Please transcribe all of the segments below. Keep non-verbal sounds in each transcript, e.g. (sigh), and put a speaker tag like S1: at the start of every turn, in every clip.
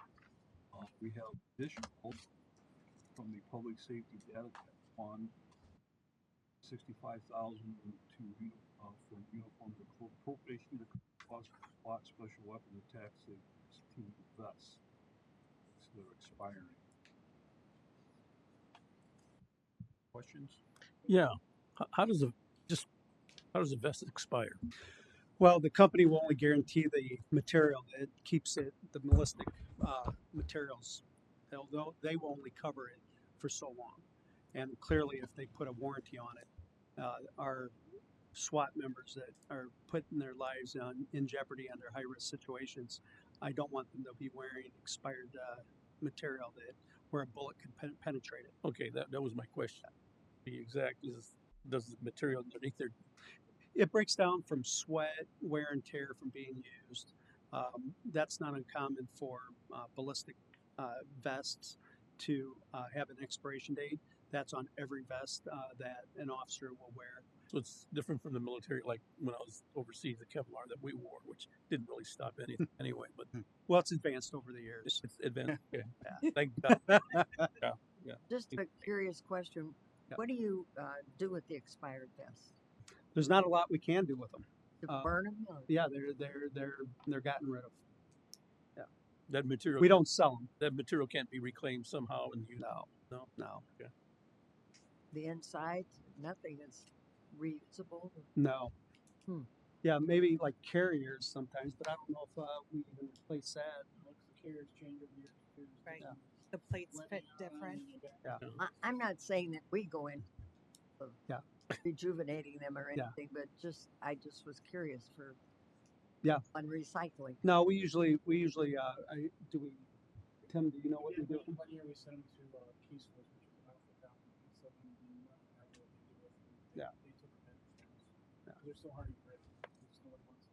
S1: Uh, we have additional from the public safety data fund, sixty-five thousand to, uni- uh, for uniform appropriation to cost lot special weapon attack safety team vests. So they're expiring. Questions?
S2: Yeah. How, how does the just how does the vest (laughs) expire?
S3: Well, the company will only guarantee the material. It keeps it, the ballistic uh, materials, they'll, they'll, they will only cover it for so long. And clearly, if they put a warranty on it, uh, our SWAT members that are putting their lives on, in jeopardy under high risk situations, I don't want them to be wearing expired uh, material that where a bullet could pen- penetrate it.
S2: Okay, that, that was my question. The exact is does the material underneath there
S3: It breaks down from sweat, wear and tear from being used. Um, that's not uncommon for uh, ballistic uh, vests to uh, have an expiration date. That's on every vest uh, that an officer will wear.
S2: so it's different from the military like when I was overseas the Kevlar that we wore, which didn't really stop
S3: (laughs)
S2: anything anyway, but
S3: Well, it's advanced over the
S2: it's,
S3: years. (laughs)
S2: it's advanced. Okay.
S3: Yeah. (laughs)
S2: Thank God.
S4: Just a curious question.
S3: Yeah.
S4: What do you uh, do with the expired vests?
S3: There's not a lot we can do with them.
S4: You
S3: Uh,
S4: burn them? Or
S3: Yeah, they're they're they're they're gotten rid of.
S2: That material
S3: We don't sell them.
S2: that material can't be reclaimed somehow and used.
S3: No,
S2: No.
S3: no,
S4: the inside? Nothing is reusable.
S3: no.
S4: Hmm.
S3: Yeah, maybe like carriers sometimes, but I don't know if uh, we even replace that. Like the carriers change every year. carriers do
S5: Right.
S3: that.
S5: The plates fit different.
S4: I, I'm not saying that we go in of
S3: Yeah.
S4: rejuvenating them or
S3: Yeah.
S4: anything, but just I just was curious for
S3: Yeah.
S4: on recycling.
S3: No, we usually we usually uh, I do we. Tim, do you know what we do?
S6: One year we sent them to uh, Keys Force, which is about four thousand. We sold them to them, uh, I don't know what they did with them. They-
S3: Yeah.
S6: They took them in.
S3: Yeah.
S6: They're so hard to grip. There's no one wants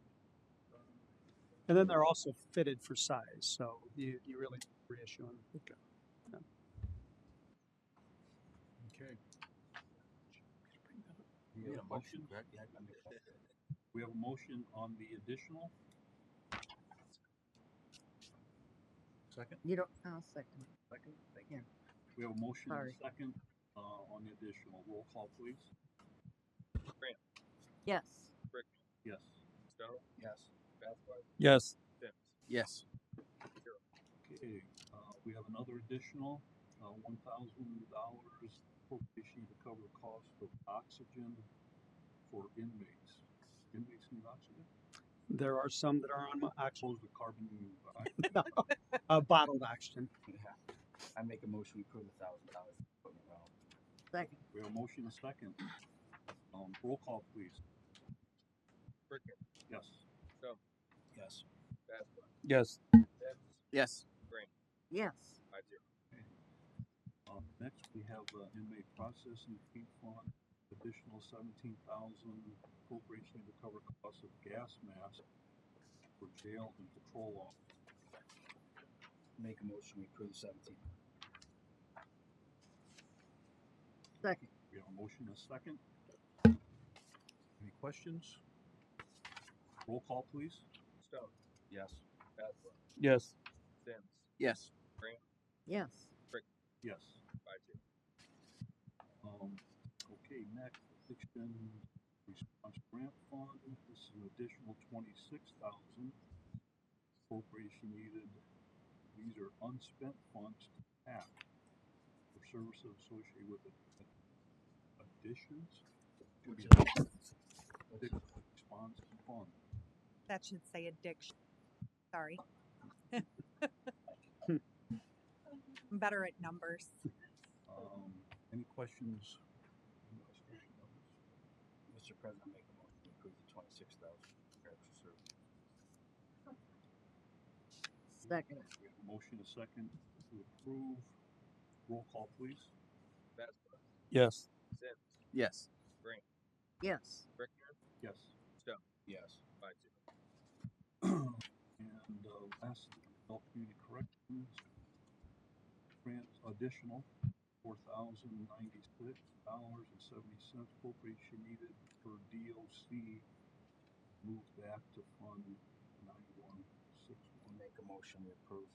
S6: to burn them.
S3: And then they're also fitted for size, so you you really reissue them.
S1: Okay. We have a motion? We have a motion on the additional. Second?
S4: You don't. I'll second. it.
S1: Second, thank
S4: Yeah.
S1: you. We have a motion and a
S4: Sorry.
S1: second, uh, on the additional. Roll call, please.
S4: Yes.
S1: Yes.
S6: Yes.
S2: Yes.
S7: Yes.
S1: Okay, uh, we have another additional, uh, one thousand dollars appropriation to cover the cost of oxygen for inmates. Inmates need oxygen?
S3: There are some that are on mo- ox-
S1: Suppose the carbon, I
S3: uh, bottled oxygen.
S7: I make a motion we approve a thousand dollars. for the round.
S4: Second.
S1: We have a motion and a second. Um, roll call, please. Yes.
S7: Yes.
S2: Yes.
S7: Yes.
S4: Yes.
S1: Um, next, we have uh, inmate processing fee fund, additional seventeen thousand appropriation to cover costs of gas masks for jail and patrol officers.
S7: Make a motion we approve seventeen.
S4: Second.
S1: We have a motion and a second. Any questions? Roll call, please.
S7: Yes.
S2: Yes.
S7: Yes.
S4: Yes.
S1: Yes. Um, okay, next, addiction response grant fund, this is an additional twenty-six thousand. Appropriation needed, these are unspent funds to tap for services associated with ad- additions. to the addiction Response fund.
S5: That should say addiction.
S3: (laughs)
S5: Sorry. I'm better at numbers.
S1: Um, any questions?
S7: Mr. President, I make a motion we approve the twenty-six thousand.
S4: Second.
S1: We have a motion, a second to approve. Roll call, please.
S2: Yes.
S7: Yes.
S4: Yes.
S1: Yes.
S7: Yes.
S1: (clears throat) And, uh, last, adult community corrections. Grant additional, four thousand ninety-six dollars and seventy cents appropriation needed per DOC. Move back to fund nine one six
S7: Make a motion we approve